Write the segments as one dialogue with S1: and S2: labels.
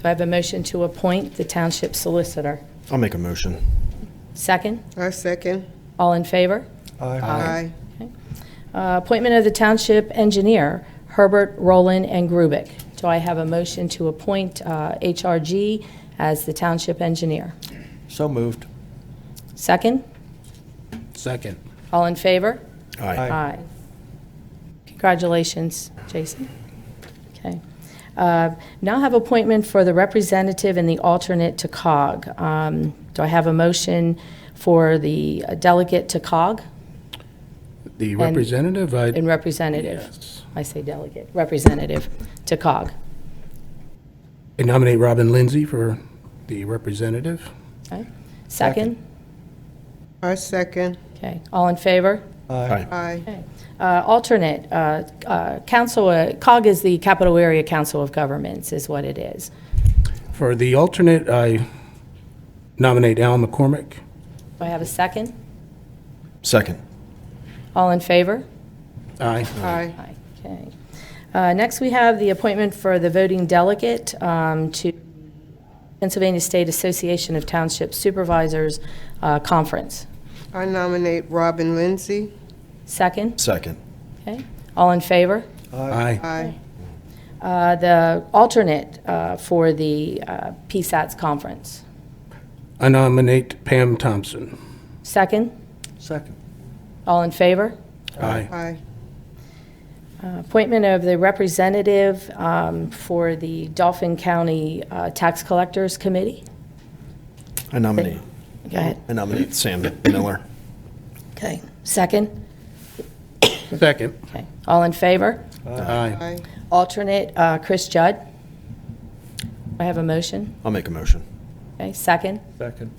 S1: Do I have a motion to appoint the township solicitor?
S2: I'll make a motion.
S1: Second?
S3: I second.
S1: All in favor?
S3: Aye.
S1: Uh, Appointment of the township engineer, Herbert, Roland, and Grubik. Do I have a motion to appoint uh, HRG as the township engineer?
S4: So moved.
S1: Second?
S4: Second.
S1: All in favor?
S2: Aye.
S4: Aye.
S1: Aye. Congratulations, Jason. Okay. Uh, Now have appointment for the representative and the alternate to COG. Um, Do I have a motion for the uh, delegate to COG
S4: The representative, I,
S1: and representative?
S4: Yes.
S1: I say delegate, representative to COG.
S4: I nominate Robin Lindsay for the representative.
S1: Okay. Second?
S3: I second.
S1: Okay, all in favor?
S2: Aye.
S3: Aye.
S1: Okay. Uh, Alternate, uh, uh, council, uh, COG is the Capital Area Council of Governments, is what it is.
S4: For the alternate, I nominate Al McCormick.
S1: Do I have a second?
S2: Second.
S1: All in favor?
S4: Aye.
S3: Aye.
S1: Aye. Okay. Uh, Next, we have the appointment for the voting delegate um, to Pennsylvania State Association of Township Supervisors uh, Conference.
S3: I nominate Robin Lindsay.
S1: Second?
S2: Second.
S1: Okay, all in favor?
S4: Aye.
S3: Aye.
S1: Uh, The alternate uh, for the uh, PSATS Conference.
S4: I nominate Pam Thompson.
S1: Second?
S2: Second.
S1: All in favor?
S4: Aye.
S3: Aye.
S1: Uh, Appointment of the representative um, for the Dauphin County uh, Tax Collectors Committee.
S2: I nominate,
S1: Go ahead.
S2: I nominate Sam Miller.
S1: Okay. Second?
S4: Second.
S1: Okay. All in favor?
S4: Aye.
S3: Aye.
S1: Alternate, uh, Chris Judd. I have a motion.
S2: I'll make a motion.
S1: Okay, second?
S5: Second.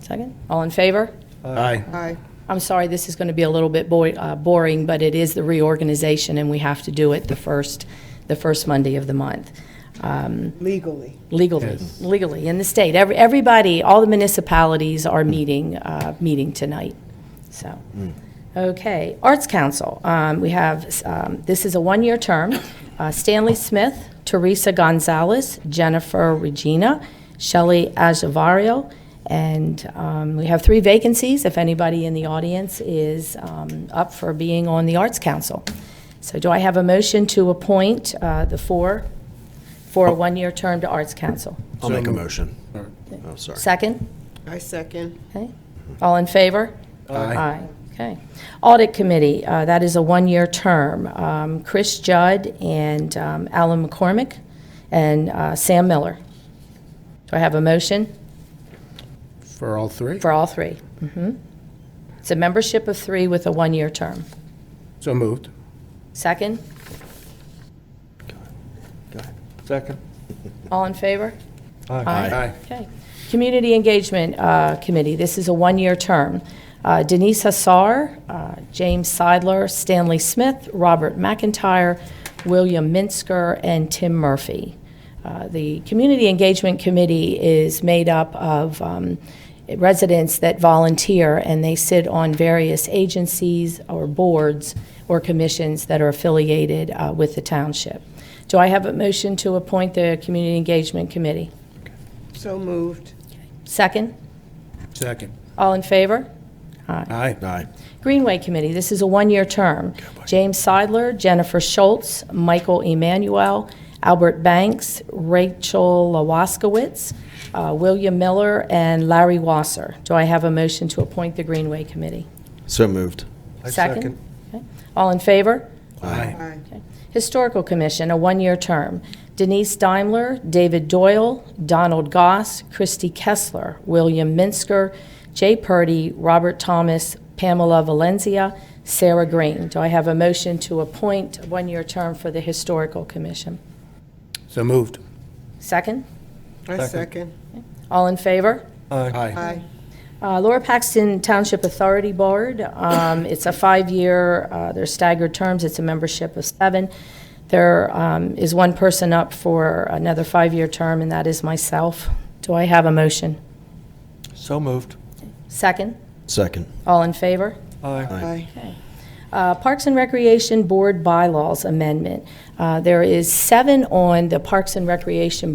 S1: Second? All in favor?
S4: Aye.
S3: Aye.
S1: I'm sorry, this is going to be a little bit boi- uh, boring, but it is the reorganization, and we have to do it the first, the first Monday of the month. Um,
S3: Legally.
S1: Legally,
S4: Yes.
S1: legally, in the state. Every- Everybody, all the municipalities are meeting, uh, meeting tonight, so. Okay, Arts Council, um, we have, um, this is a one-year term. Uh, Stanley Smith, Teresa Gonzalez, Jennifer Regina, Shelley Ajavario, and um, we have three vacancies, if anybody in the audience is um, up for being on the Arts Council. So do I have a motion to appoint uh, the four for a one-year term to Arts Council.
S2: I'll
S4: So
S2: make a
S4: moved.
S2: motion.
S4: All right.
S2: Oh, sorry.
S1: Second?
S3: I second.
S1: Okay. All in favor?
S4: Aye.
S1: Okay. Audit Committee, uh, that is a one-year term. Um, Chris Judd and um, Alan McCormick and uh, Sam Miller. Do I have a motion
S4: For all three?
S1: for all three? Mhm. It's a membership of three with a one-year term.
S4: So moved.
S1: Second?
S2: Go ahead.
S5: Second.
S1: All in favor?
S4: Aye.
S1: Okay. Community Engagement uh, Committee, this is a one-year term. Uh, Denise Hassar, uh, James Seidler, Stanley Smith, Robert McIntyre, William Minsker, and Tim Murphy. Uh, The Community Engagement Committee is made up of um, residents that volunteer, and they sit on various agencies or boards or commissions that are affiliated uh, with the township. Do I have a motion to appoint the Community Engagement Committee?
S3: So moved.
S1: Second?
S4: Second.
S1: All in favor?
S4: Aye.
S2: Aye.
S1: Greenway Committee, this is a one-year term. James Seidler, Jennifer Schultz, Michael Emanuel, Albert Banks, Rachel Lawaskowitz, uh, William Miller, and Larry Wasser. Do I have a motion to appoint the Greenway Committee?
S2: So moved.
S5: I second.
S1: Okay. All in favor?
S4: Aye.
S3: Aye.
S1: Historical Commission, a one-year term. Denise Daimler, David Doyle, Donald Goss, Christy Kessler, William Minsker, Jay Purdy, Robert Thomas, Pamela Valencia, Sarah Green. Do I have a motion to appoint a one-year term for the Historical Commission?
S4: So moved.
S1: Second?
S3: I second.
S1: All in favor?
S4: Aye.
S3: Aye.
S1: Uh, Laura Paxton Township Authority Board, um, it's a five-year, uh, they're staggered terms, it's a membership of seven. There um, is one person up for another five-year term, and that is myself. Do I have a motion?
S5: So moved.
S1: Second?
S2: Second.
S1: All in favor?
S5: Aye.
S3: Aye.
S1: Uh, Parks and Recreation Board Bylaws Amendment. Uh, There is seven on the Parks and Recreation